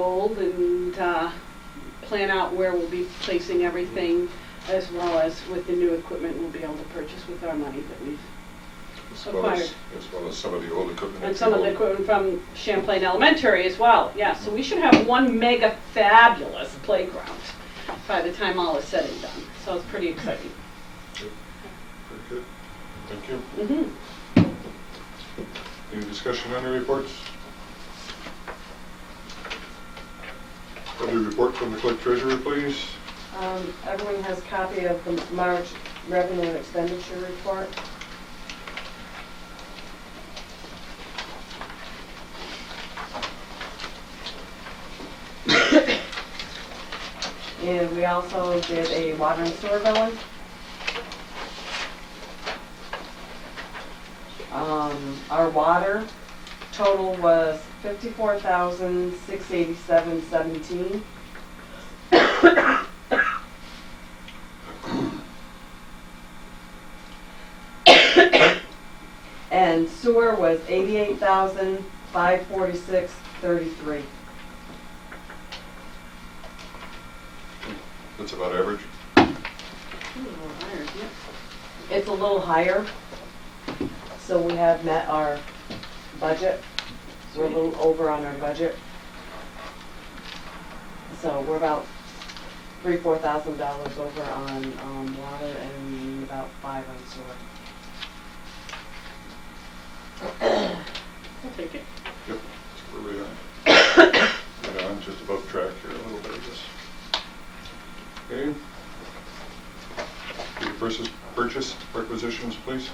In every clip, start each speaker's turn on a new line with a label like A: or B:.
A: mold and uh, plan out where we'll be placing everything, as well as with the new equipment we'll be able to purchase with our money that we've
B: As well as,
A: acquired.
B: as well as some of the old equipment.
A: And some of the equipment from Champlain Elementary as well, yeah, so we should have one mega fabulous playground by the time all is said and done, so it's pretty exciting.
B: Very good. Thank you.
A: Mhm.
B: Any discussion on the reports? Other report from the clerk treasurer, please.
C: Um, Everyone has copy of the March revenue and expenditure report. And we also did a water and sewer billing. Um, Our water total was fifty-four thousand, six eighty-seven, seventeen. And sewer was eighty-eight thousand, five forty-six, thirty-three.
B: That's about average.
A: Hmm,
C: It's a little higher, so we have met our budget. We're a little over on our budget. So we're about three, four thousand dollars over on, um, water and about five on sewer.
A: I'll take it.
B: Yep, that's where we are. You know, I'm just above track here a little bit, I guess. Okay. Do the Purchase, purchase requisitions, please.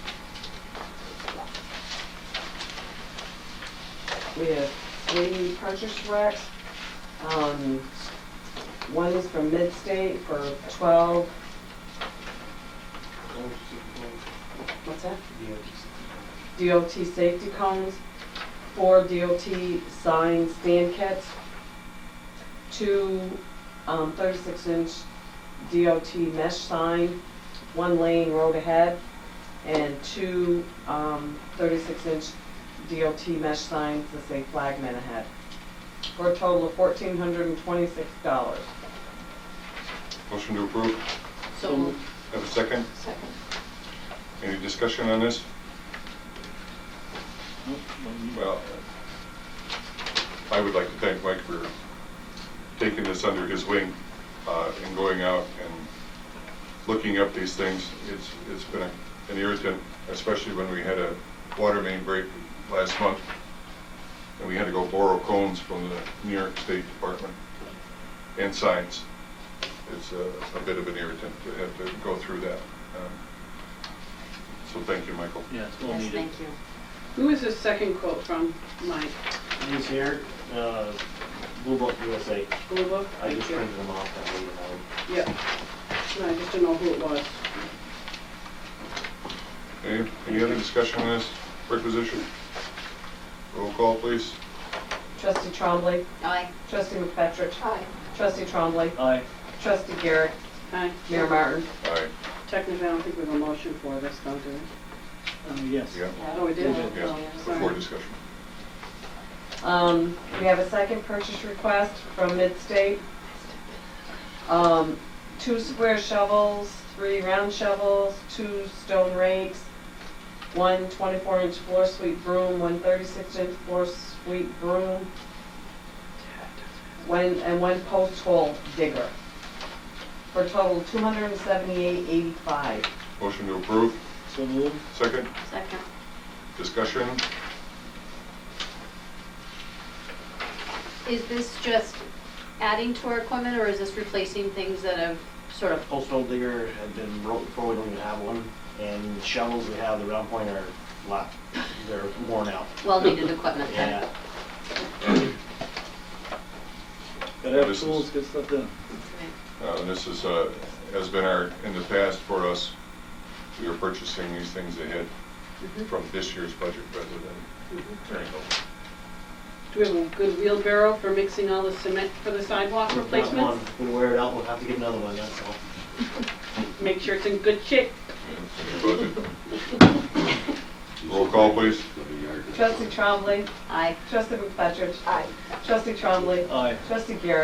C: We have three purchase racks. Um, one is from Midstate for twelve, what's that? DOT safety cones, four DOT sign stand kits, two um, 36-inch DOT mesh sign, one lane road ahead, and two um, 36-inch DOT mesh signs that say flagman ahead, for a total of $1,426.
B: Motion to approve.
D: So moved.
B: Have a second?
D: Second.
B: Any discussion on this? Well, I would like to thank Mike for taking this under his wing uh, and going out and looking up these things. It's, it's been a- an irritant, especially when we had a water main break last month and we had to go borrow cones from the New York State Department and signs. It's a a bit of an irritant to have to go through that. Um, So thank you, Michael.
E: Yeah, it's well
D: Yes,
E: needed.
D: thank you.
A: Who is this second quote from, Mike?
F: These here, uh, Blue Book USA,
A: Blue Book?
F: I
A: Thank
F: just
A: you.
F: printed them off that way, you know.
A: Yep. No, I just didn't know who it was.
B: Any, any other discussion on this requisition? Roll call, please.
C: Trustee Trombley,
D: Aye.
C: trustee McFetrich,
D: Aye.
C: trustee Trombley,
F: Aye,
C: trustee Garrett,
A: Hi.
C: Mayor Martin.
B: Aye.
A: Technically, I don't think we have a motion for this, though, do we?
F: uh, yes.
B: Yeah,
A: Oh, we did?
F: did,
B: yeah, before discussion.
C: Um, we have a second purchase request from Midstate. Um, two square shovels, three round shovels, two stone rakes, one 24 inch floor sweep broom, one 36 inch floor sweep broom, one, and one post hole digger. For a total two hundred and seventy-eight eighty-five.
B: Motion to approve.
F: So moved,
B: Second,
D: Second.
B: discussion.
D: Is this just adding to our equipment, or is this replacing things that have sort of,
F: postal digger had been broke before, we don't even have one, and shovels we have, the round point are locked, they're worn out.
D: well-needed equipment then?
F: Yeah. Gotta have
B: This is-
F: tools, get stuff done.
B: Uh, this is, uh, has been our, in the past for us, we were purchasing these things ahead from this year's budget rather than carrying over.
A: Do we have a good wheelbarrow for mixing all the cement for the sidewalk
F: We've got
A: replacements?
F: one. We'll wear it out, we'll have to get another one, that's all.
A: Make sure it's in good shape.
B: Budget. Roll call, please.
G: Another yard
C: Trustee Trombley.
D: Aye.
C: Trustee McFetrich.
E: Aye.
C: Trustee Trombley.
G: Aye.
C: Trustee Garrett.